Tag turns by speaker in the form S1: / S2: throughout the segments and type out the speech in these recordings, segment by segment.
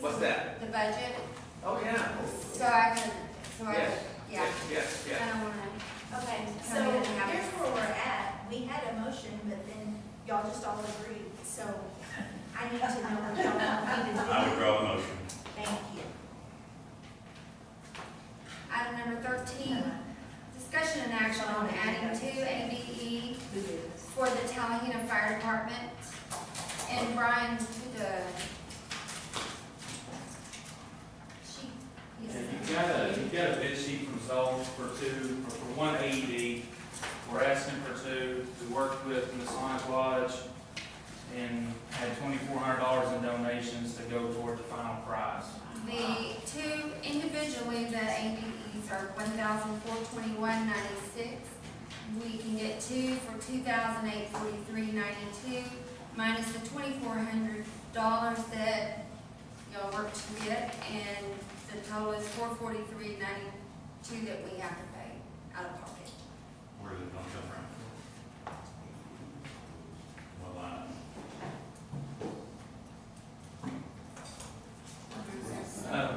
S1: What's that?
S2: The budget,
S1: Oh, yeah.
S2: so I can, so I,
S1: Yes.
S2: yeah,
S1: Yes, yes, yes.
S2: I don't wanna,
S3: Okay, so
S2: No, we didn't have it.
S3: here's where we're at. We had a motion, but then y'all just all agreed, so I need to know what y'all want me to do.
S4: I withdraw the motion.
S3: Thank you.
S2: item number thirteen, discussion and action on adding two ADE for the Tallahena Fire Department. And Brian to the. She,
S5: Yeah,
S2: yes.
S5: You've got a, you've got a bid sheet from Zoll for two, or for one AED. We're asking for two. We worked with Masonic Lodge and had twenty-four hundred dollars in donations to go toward the final prize.
S2: The two individually, the APEs are one thousand four twenty-one ninety-six. We can get two for two thousand eight forty-three ninety-two, minus the twenty-four hundred dollars that y'all worked to get, and the total is four forty-three ninety-two that we have to pay out of pocket.
S4: Where did it come from? What line?
S5: Um,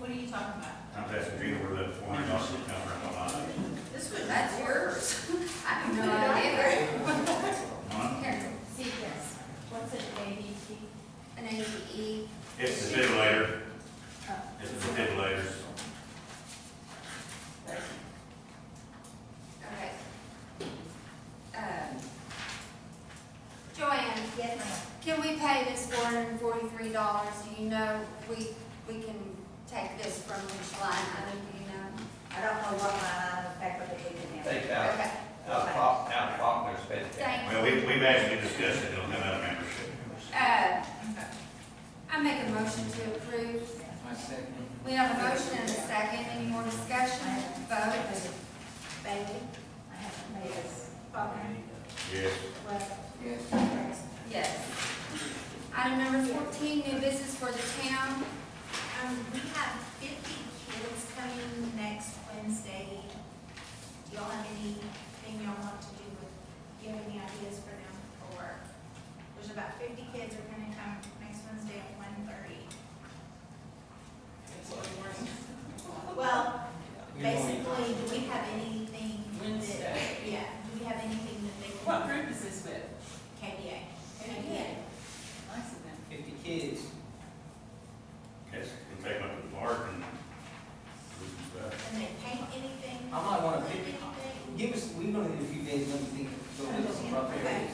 S3: What are you talking about?
S4: I'm asking Gina where that four hundred dollars come from, what line?
S3: This was.
S2: That's yours. I have no idea.
S4: Huh?
S2: Here,
S3: See, yes. What's it, ADT?
S2: an E. APE,
S4: It's the defibrillator.
S3: Oh.
S4: It's the defibrillators.
S2: okay. Um, Joanne,
S3: Yes, ma'am.
S2: Can we pay this four hundred and forty-three dollars, do you know, we, we can take this from which line, I don't, do you know?
S3: I don't know what my, uh, in fact, what they did
S1: Take out,
S2: Okay,
S1: out of Faulkner, out of Faulkner's bed.
S2: thanks.
S4: Uh, Well, we, we've actually discussed it, it'll come out of membership.
S2: Uh, I make a motion to approve.
S5: I second.
S2: We have a motion and a second, any more discussion, vote?
S3: Bailey? I haven't made this. Okay.
S4: Yes.
S3: Yes.
S2: Yes. Item number fourteen, new business for the town,
S3: Um, we have fifty kids coming next Wednesday. Do y'all have anything y'all want to do with, do you have any ideas for them for? There's about fifty kids are gonna come next Wednesday at one thirty. Well, basically, do we have anything? that-
S6: Wednesday.
S3: Yeah, do we have anything that they
S6: What
S3: can,
S6: group is this with?
S3: KBA?
S6: Nice of them.
S5: Fifty kids.
S4: Yes, we take them up to the park and do some stuff.
S3: Can they paint anything?
S6: I might wanna
S3: Flip
S6: pick-
S3: anything?
S6: Give us, we're gonna need a few days, let me think, go look at some rough areas.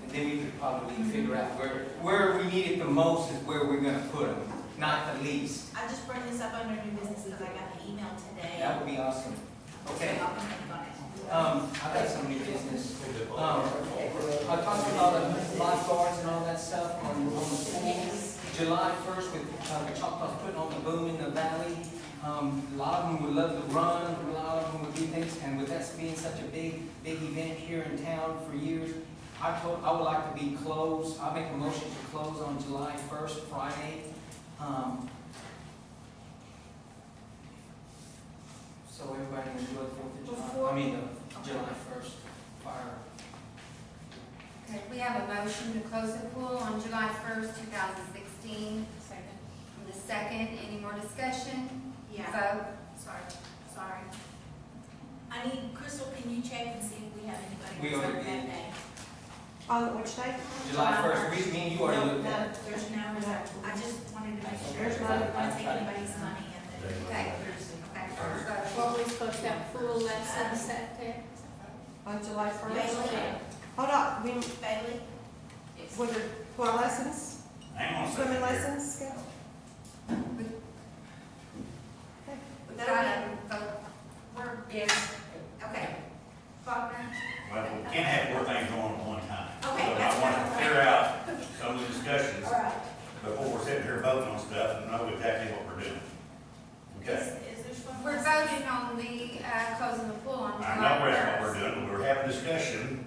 S6: And then we could probably figure out where, where we need it the most is where we're gonna put them, not the least.
S3: I just brought this up under new business because I got the email today.
S6: That would be awesome. Okay,
S3: So I'll think on it.
S6: um, I got some new business. Um, I talked about the lifeguards and all that stuff on, on the pool. July first with, uh, Choctaw's putting on the boom in the valley. Um, a lot of them would love to run, a lot of them would do things, and with us being such a big, big event here in town for years, I told, I would like to be closed, I make a motion to close on July first, Friday. Um, So everybody can enjoy the Fourth of July, I mean, the July first fire.
S2: okay, we have a motion to close the pool on July first, two thousand sixteen. Second. The second, any more discussion,
S3: Yeah,
S2: vote?
S3: sorry, sorry. I need, Crystal, can you check and see if we have anybody?
S6: We
S3: that's
S6: already
S3: on that
S6: did.
S3: day?
S7: On which day?
S6: July first, we, me and you already
S3: No,
S6: looked at it.
S3: no, There's no, I just wanted to make sure.
S6: There's
S3: I
S6: not-
S3: don't want to take anybody's money and then.
S2: Okay.
S3: Okay.
S7: Well, we supposed to have pool
S3: at sunset
S7: there? On July first?
S3: Bailey,
S7: Hold on, we,
S3: Bailey,
S7: what are, what are lessons?
S4: Hang on a second.
S7: Swimming
S4: here.
S7: lessons, Scott?
S3: would that
S2: Gotta vote.
S3: be, we're, okay. Faulkner,
S4: Well, we can't have four things going on at one time.
S3: Okay,
S4: So
S3: that's
S4: I want
S3: fine.
S4: to clear out some of the discussions
S3: all right.
S4: before we're sitting here voting on stuff and know exactly what we're doing. Okay?
S3: Is, is there someone?
S2: We're voting on the, uh, closing the pool on July
S4: I know that's what we're
S2: first.
S4: doing, but we're having discussion.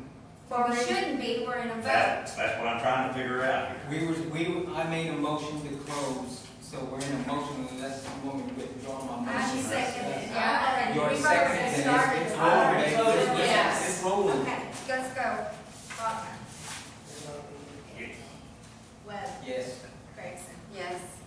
S2: Well, we shouldn't be, we're in a vote.
S4: That, that's what I'm trying to figure out here.
S6: We were, we, I made a motion to close, so we're in a motion unless you want me to withdraw my motion.
S2: I should second it, yeah, and
S6: Your
S2: we've
S6: second,
S2: already
S6: then it's, it's
S2: started.
S6: rolling, baby. It's-
S2: Yes.
S6: It's rolling.
S3: Okay,
S2: Let's go. Faulkner.
S3: Webb,
S6: Yes.
S3: Grayson,
S2: Yes.